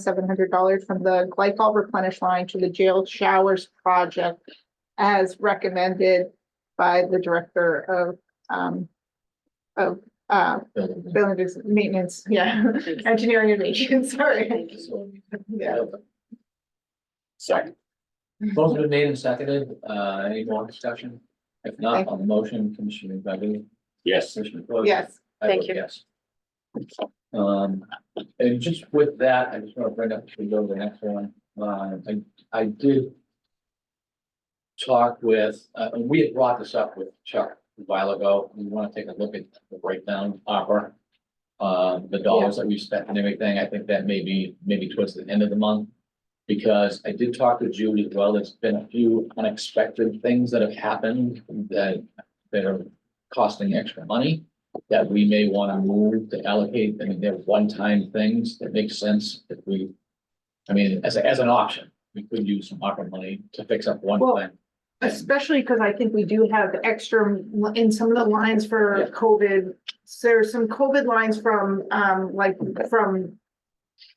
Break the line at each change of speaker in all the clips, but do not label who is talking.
seven hundred dollars from the glycol replenish line to the jail showers project as recommended by the director of, um, of, uh,
building.
building maintenance, yeah, engineering and maintenance, sorry. Yeah.
Second. Both been made and seconded, uh, any more discussion? If not, on the motion, Commissioner McVeigh.
Yes.
Commissioner Coyle.
Yes,
I vote
Thank you.
Yes. Um, and just with that, I just want to bring up, we go to the next one, uh, I, I did. Talk with, uh, and we had brought this up with Chuck a while ago, we want to take a look at the breakdown offer. Uh, the dollars that we spent and everything, I think that may be, maybe towards the end of the month. Because I did talk to Julie as well, there's been a few unexpected things that have happened that, that are costing extra money that we may want to move to allocate, I mean, they're one-time things that make sense if we. I mean, as, a- as an option, we could use some ARPA money to fix up one
Well,
thing.
especially because I think we do have extra in some of the lines
Yeah.
for COVID. So There's some COVID lines from, um, like, from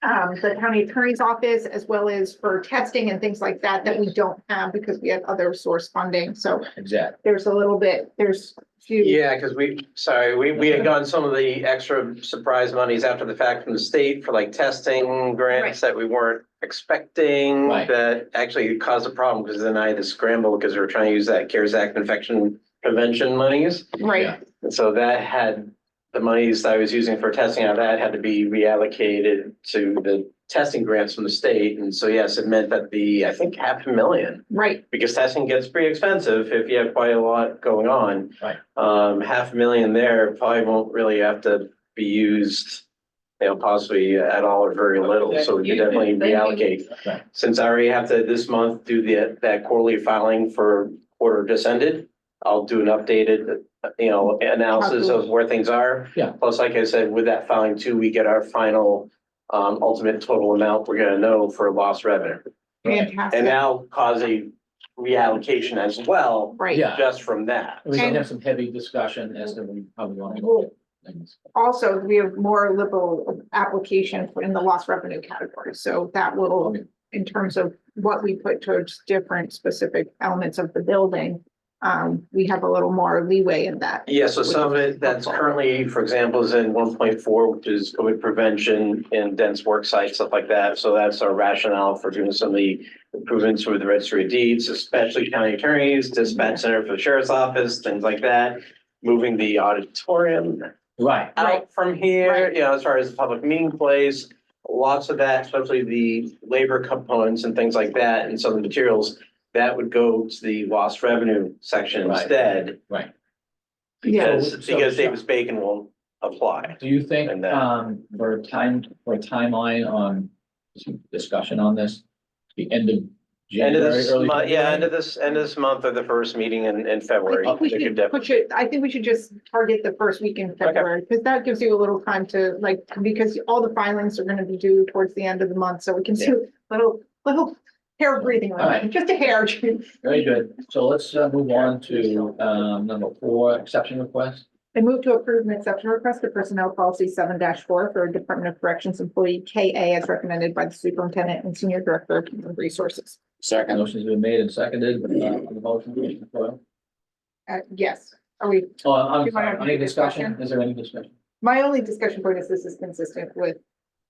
um, the county attorney's office as well as for testing and things like that, that we don't have because we have other source funding. So
Exactly,
there's a little bit, there's few,
Yeah, because we, sorry, we, we had gotten some of the extra surprise monies after the fact from the state for like testing grants that we weren't expecting.
Right.
That actually caused a problem because then I had to scramble because we were trying to use that CARES Act infection prevention monies.
right?
And so that had, the monies that I was using for testing, out of that had to be reallocated to the testing grants from the state. And so, yes, it meant that the, I think half a million
Right,
because testing gets pretty expensive if you have quite a lot going on.
Right.
Um, half a million there probably won't really have to be used, you know, possibly at all or very little, so we could definitely reallocate.
Right.
Since I already have to this month do the, that quarterly filing for quarter just ended, I'll do an updated, you know, analysis of where things are.
Yeah.
Plus, like I said, with that filing too, we get our final, um, ultimate total amount we're gonna know for lost revenue. And
fantastic,
now cause a reallocation as well,
right.
yeah.
just from that.
We can have some heavy discussion as to we- how we want to
Well-
go. with things.
Also, we have more liberal application in the lost revenue category, so that will,
Okay.
in terms of what we put towards different specific elements of the building. Um, we have a little more leeway in that.
Yeah, so some of it that's currently, for example, is in one point four, which is COVID prevention and dense work sites, stuff like that. So that's our rationale for doing some of the improvements with the registry of deeds, especially county attorneys, dispatch center for the sheriff's office, things like that. Moving the auditorium
Right,
Right.
out from here,
Right.
you know, as far as the public meeting place, lots of that, especially the labor components and things like that, and some of the materials, that would go to the lost revenue section
Right.
instead,
right.
Yeah,
because,
So-
because
so-
Davis Bacon won't apply.
Do you think,
And, uh,
um, for a time, for a timeline on discussion on this, the end of
End of
January,
this,
early?
month, yeah, end
February?
of this, end of this month or the first meeting in, in February.
I think we
They could
should
def-
put it, I think we should just target the first week in February, because that gives you a little time to, like, because all the filings are gonna be due towards the end of the month, so we can see a little, little hair breathing,
All right.
just a hair.
Very good. So let's uh, move on to, um, number four, exception request.
I move to approve an exception request to personnel policy seven four for Department of Corrections employee K A as recommended by the superintendent and senior director of human resources.
Second.
Motion's been made and seconded, uh, on the motion, Commissioner Coyle.
Uh, yes, are we,
Oh, I'm
You wanna
sorry,
have
any
any
discussion?
discussion?
Is there any discussion?
my only discussion point is this is consistent with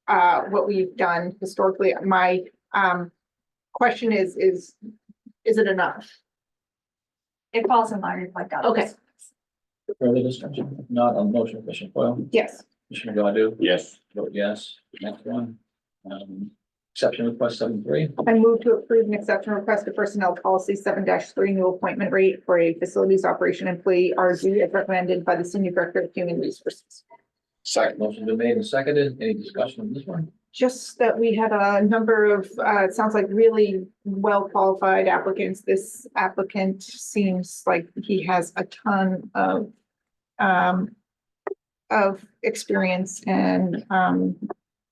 uh, what we've done historically. My um, question is, is, is it enough?
It falls in line with like that.
Okay.
Further discussion? If Not on the motion, Commissioner Coyle.
Yes,
Commissioner Godu?
Yes.
Vote yes. Next one. Um, exception request seven three.
I move to approve an exception request to personnel policy seven three new appointment rate for a facilities operation employee R Z as recommended by the senior director of human resources.
Second.
Motion's been made and seconded. Any discussion on this one?
Just that we had a number of, uh, it sounds like really well-qualified applicants. This applicant seems like he has a ton of, um, of experience and, um,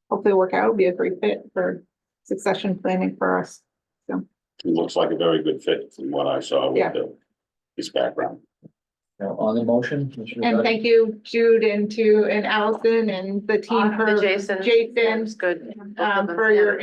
hopefully work out, be a great fit for succession planning for us.
He looks like a very good fit from what I saw
Yeah.
with the, his background.
Now, on the motion, Mr.
And
Dunn?
thank you Jude and to, and Allison and the team
Awesome,
for,
Jason.
Jason,
Yeah, it's Good. Both of
um,
them,
for
yeah.
your